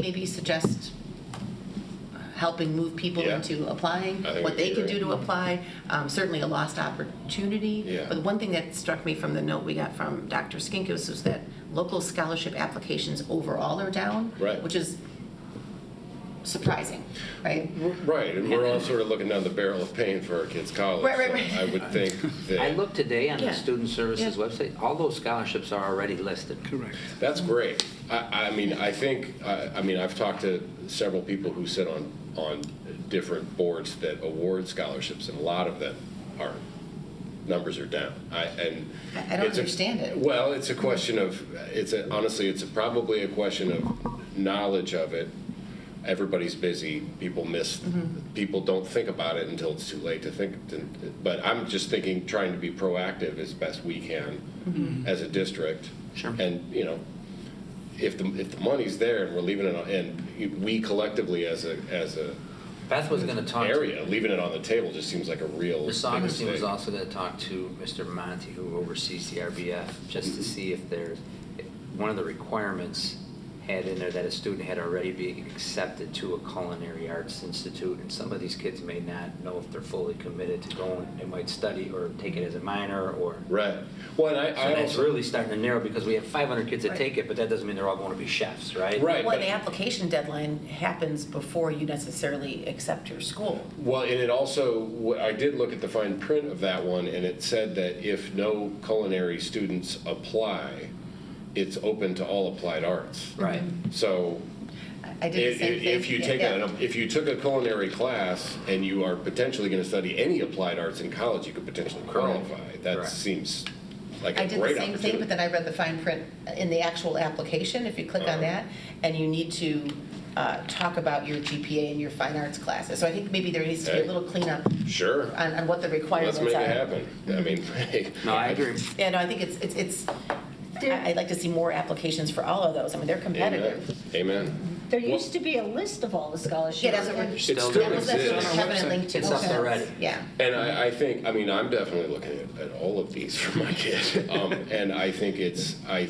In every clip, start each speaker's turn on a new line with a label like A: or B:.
A: maybe suggest helping move people
B: Yeah.
A: into applying,
B: I think
A: what
B: that'd
A: they
B: be
A: can
B: great.
A: do to apply, um, certainly a lost opportunity.
B: Yeah.
A: But one thing that struck me from the note we got from Dr. Skinkis was that local scholarship applications overall are down.
B: Right.
A: Which is surprising, right?
B: Right, and we're all sort of looking down the barrel of paying for our kids' college.
A: Right, right,
B: so
A: right.
B: I would think
C: I
B: that,
C: looked today on
A: Yeah.
C: the Student Services
A: Yeah.
C: website, all those scholarships are already listed.
D: Correct.
B: that's great. I, I mean, I think, I, I mean, I've talked to several people who sit on, on different boards that award scholarships, and a lot of them are, numbers are down. I, and.
A: I- I don't
B: it's a-
A: understand it.
B: Well, it's a question of, it's a, honestly, it's a- probably a question of knowledge of it. Everybody's busy, people miss, people don't think about it until it's too late to think. to- But I'm just thinking, trying to be proactive as best we can as a district.
C: Sure.
B: And, you know, if the, if the money's there and we're leaving it, on- and we collectively as a, as a
C: Beth was going to talk to,
B: area, leaving it on the table just seems like a real.
C: Ms.
B: big
C: Augustine was
B: mistake.
C: also going to talk to Mr. Monty, who oversees the RBF, just to see if there's, if one of the requirements had in there that a student had already been accepted to a culinary arts institute, and some of these kids may not know if they're fully committed to going, they might study or take it as a minor or.
B: Right. Well, and I,
C: So
B: I
C: that's
B: also.
C: really starting to narrow because we have 500 kids that
A: Right.
C: take it, but that doesn't mean they're all going to be chefs, right?
B: Right.
A: Well,
B: but-
A: the application deadline happens before you necessarily accept your school.
B: Well, and it also, wh- I did look at the fine print of that one, and it said that if no culinary students apply, it's open to all applied arts.
C: Right.
A: Mm-hmm.
B: So
A: I- I did the
B: if,
A: same
B: if
A: thing.
B: if you
A: Yeah,
B: take
A: yeah.
B: a, if you took a culinary class and you are potentially going to study any applied arts in college, you could potentially
C: Correct.
B: qualify. That
C: Correct.
B: seems like
A: I
B: a
A: did the
B: great
A: same thing, but
B: opportunity.
A: then I read the fine print in the actual application, if you click on
B: Uh-huh.
A: that, and you need to uh, talk about your GPA and your fine arts classes. So I think maybe there needs to be a
B: Hey.
A: little cleanup
B: Sure,
A: on, on what the requirements
B: let's
A: are.
B: make it happen. I mean,
C: No, I agree.
A: Yeah, no, I think it's, it's, it's, I- I'd like to see more applications for all of those. I mean, they're
B: Amen.
A: competitive.
B: Amen.
E: There used to be a list of all the scholarships.
A: Yeah, that's what we're,
E: and-
B: It
C: Still
B: still
C: there.
A: that's what
B: exists.
A: Kevin had linked to.
C: It's up
A: Okay.
C: already.
A: Yeah.
B: And I, I think, I mean, I'm definitely looking at, at all of these for my kid. Um, and I think it's, I,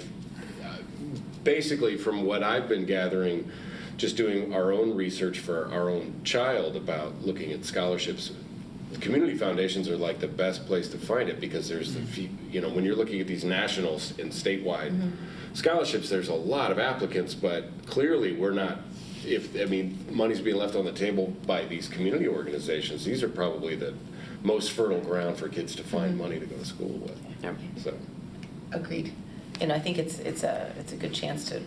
B: basically, from what I've been gathering, just doing our own research for our own child about looking at scholarships, community foundations are like the best place to find it because there's the, few- you know, when you're looking at these national s- and statewide scholarships, there's a lot of applicants, but clearly we're not. If I mean, money's being left on the table by these community organizations. These are probably the most fertile ground for kids to find money to go to school with.
C: Yep.
B: So,
A: Agreed. And I think it's, it's a, it's a good chance to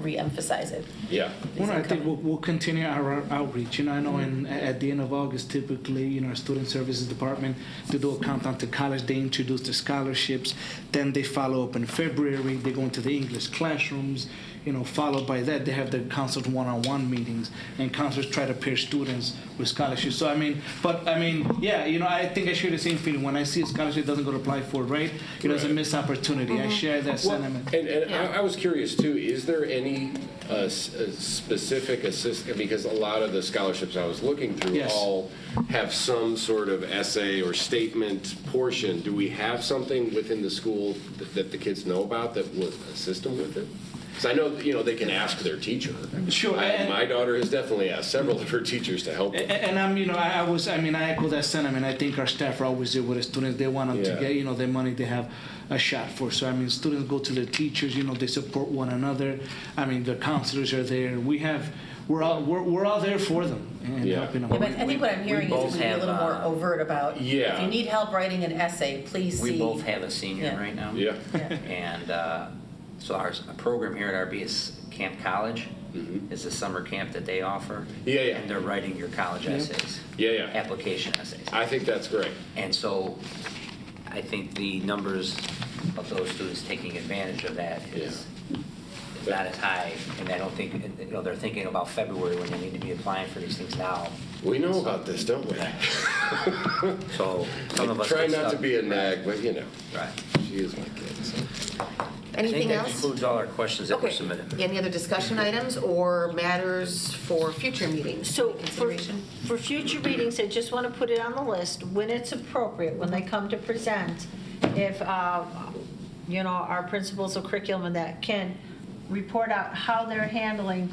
A: reemphasize it.
B: yeah.
D: Well, I think
A: Incoming.
D: we'll, we'll continue our outreach. You know, I know in, at the end of August, typically, you know, our student services department, they do a countdown to college, they introduce the scholarships, then they follow up in February, they go into the English classrooms, you know, followed by that, they have their counselors one-on-one meetings, and counselors try to pair students with scholarships. So, I mean, but, I mean, yeah, you know, I think I share the same feeling. When I see a scholarship doesn't go to apply for, right? You know, it's a
B: Right. Mm-hmm.
D: missed opportunity. I share that
B: Well,
D: sentiment.
B: And, and I, I was curious too, is there any uh, s- uh, specific assist, because a lot of the scholarships I was looking through
D: Yes.
B: all have some sort of essay or statement portion. Do we have something within the school that, that the kids know about that would assist them with it? Because I know, you know, they can ask their teacher.
D: Sure,
B: I-
D: and-
B: My daughter has definitely asked several of her teachers to help.
D: A-
B: them.
D: a- And I'm, you know, I I was, I mean, I echo that sentiment. I think our staff are always there with the students. They want them
B: Yeah.
D: to get, you know, the money they have a shot for. So, I mean, students go to their teachers, you know, they support one another. I mean, the counselors are there. We have, we're all, we're, we're all there for them and
B: Yeah.
D: helping
A: Yeah,
D: them.
A: but I think what I'm hearing
C: both
A: is we need a
C: have,
A: little more
C: uh,
A: overt about, if
B: Yeah.
A: you need help writing an essay, please see.
C: We both have a senior
A: Yeah.
C: right now.
B: Yeah,
C: And uh, so our s- program here at RB is Camp College. It's a summer camp that they offer.
B: Mm-hmm. Yeah, yeah.
C: And they're writing your college essays.
B: Yeah, yeah.
C: Application essays.
B: I think that's great.
C: And so I think the numbers of those students taking advantage of that is is not as high. And I don't think, you know, they're thinking about February when they need to be applying for these things now.
B: We know about this, don't we?
C: So some of us.
B: Try
C: get
B: not to
C: stuck.
B: be a nag, but you know,
C: Right.
B: she is my kid, so.
C: I
A: Anything
C: think that
A: else?
C: concludes all our questions that were
A: Okay,
C: submitted.
A: any other discussion items or matters for future meetings?
E: So for,
A: Consideration?
E: for future meetings, I just want to put it on the list, when it's appropriate, when they come to present, if, uh, you know, our principals of curriculum and that can report out how they're handling